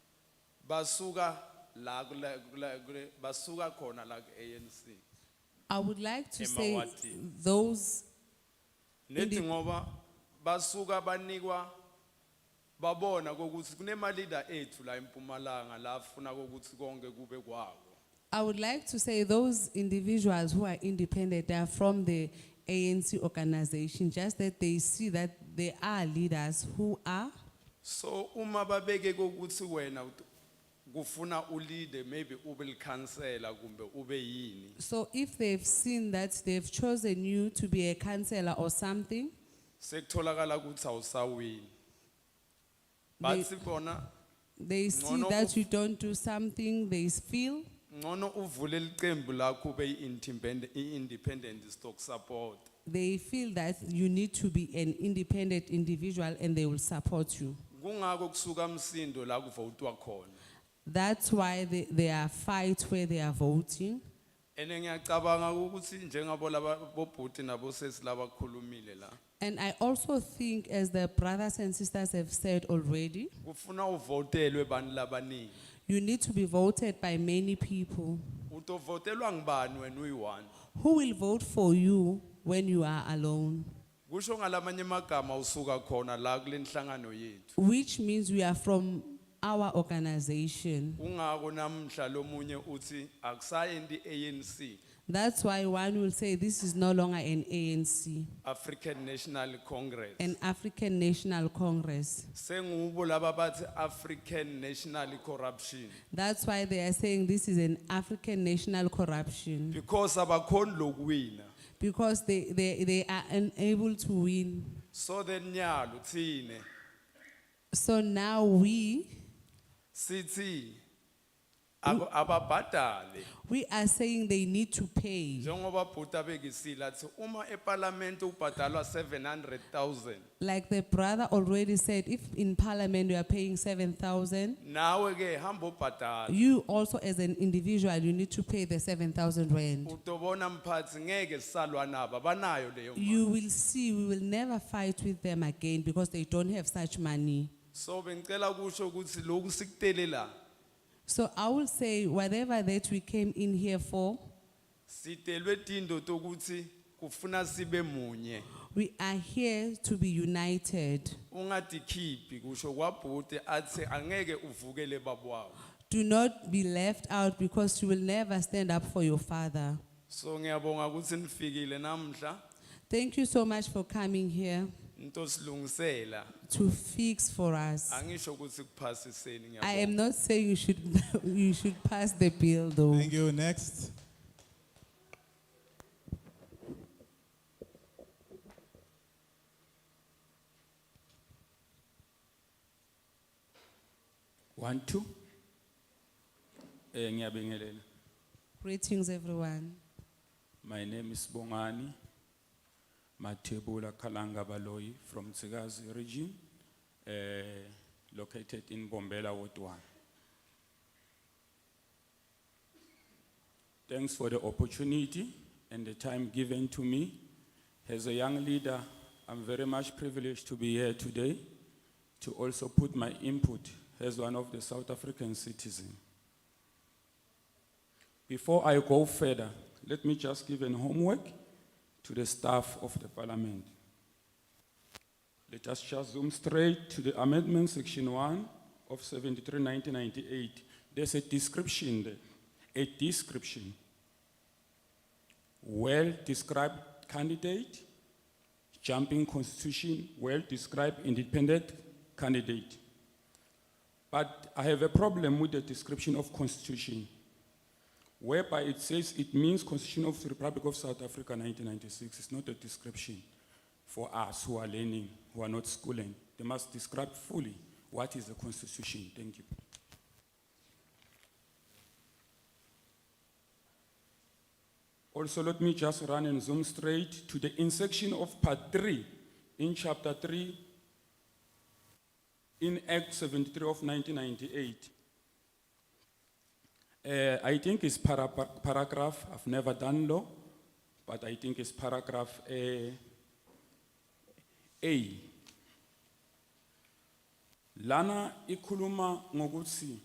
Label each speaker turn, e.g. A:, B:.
A: basuka la kule- kule- kule- basuka khona la ku-anc
B: I would like to say
C: Emawathi.
B: those,
A: nethi
B: Indi-
A: ngoba basuka banikwa babona kokuthi kunemalida ethu la empumalanga la afuna kokuthi konke kube kwawo
B: I would like to say those individuals who are independent, they are from the ANC organization, just that they see that there are leaders who are,
A: so uma babeke kokuthi wena ut- kufuna ulide maybe ube likhansela kumbe ube yini
B: so if they've seen that they've chosen you to be a counselor or something,
A: sekutholakala ukuthi awusawini
B: They-
A: bathi bona
B: they see
A: Ngcono
B: that
A: uf-
B: you don't do something, they feel,
A: ngcono uvule licembu lakho ube i-independent- i-independent stock support
B: they feel that you need to be an independent individual and they will support you.
A: kungako kusuka msindo la kuvotwa khona
B: That's why they, there are fights where they are voting.
A: ene ngiyacabanga ukuthi njengabo laba bobhuti nabosesi labakhulumile la
B: And I also think, as the brothers and sisters have said already,
A: kufuna uvotelwe bani labaningi
B: you need to be voted by many people.
A: utovotelwa ngibani wena uyi-one
B: Who will vote for you when you are alone?
A: kusho ngalamanye amagama usuka khona la kule nhlangano yethu
B: Which means we are from our organization.
A: kungako namhla lomunye uthi akusayenti i-anc
B: That's why one will say this is no longer an ANC,
A: african national congress
B: an African National Congress.
A: sengubo laba bathi african national corruption
B: That's why they are saying this is an African national corruption
A: because abakhoni lokuwina
B: because they, they, they are unable to win.
A: so then nyalo thine
B: So now we,
A: sithi abo- ababhadale
B: we are saying they need to pay.
A: njengoba bhuta bekisile athi uma epalamente ubhadalwa 700,000
B: Like the brother already said, if in parliament you are paying 7,000,
A: nawe ke hamba ubhadala
B: you also as an individual, you need to pay the 7,000 rand.
A: utobona mphathi ngeke sisalwa nabo abanayo leyo mali.
B: You will see, we will never fight with them again because they don't have such money.
A: so bengicela kusho ukuthi lokhu sikutelela
B: So I will say, whatever that we came in here for,
A: sitelwe tindo tokuthi kufuna sibe munye
B: we are here to be united.
A: ungadikhiphi kusho kwabhuti athi angeke uvukele babwawo
B: Do not be left out because you will never stand up for your father.
A: so ngiyabonga ukuthi nifikile namhla
B: Thank you so much for coming here
A: into silungisela
B: to fix for us.
A: angisho ukuthi kuphasiseni
B: I
A: ngiyabonga
B: am not saying you should, you should pass the bill though.
D: Thank you. Next.
C: One, two. Eh, ngiyabingelela.
B: Greetings, everyone.
C: My name is Bongani Matebula Kalanga Baloyi from Tsigazi region, eh, located in Bombela, Ward One. Thanks for the opportunity and the time given to me. As a young leader, I'm very much privileged to be here today to also put my input as one of the South African citizens. Before I go further, let me just give an homework to the staff of the parliament. Let us just zoom straight to the amendment section one of 73 1998. There's a description there, a description. Well-described candidate, jumping constitution, well-described independent candidate. But I have a problem with the description of constitution whereby it says it means Constitution of the Republic of South Africa 1996. It's not a description for us who are learning, who are not schooling. They must describe fully what is the Constitution. Thank you. Also, let me just run and zoom straight to the in section of part three, in chapter three, in Act 73 of 1998. Uh, I think it's para- par- paragraph, I've never done law, but I think it's paragraph uh, A. Lana ikuluma ngokuthi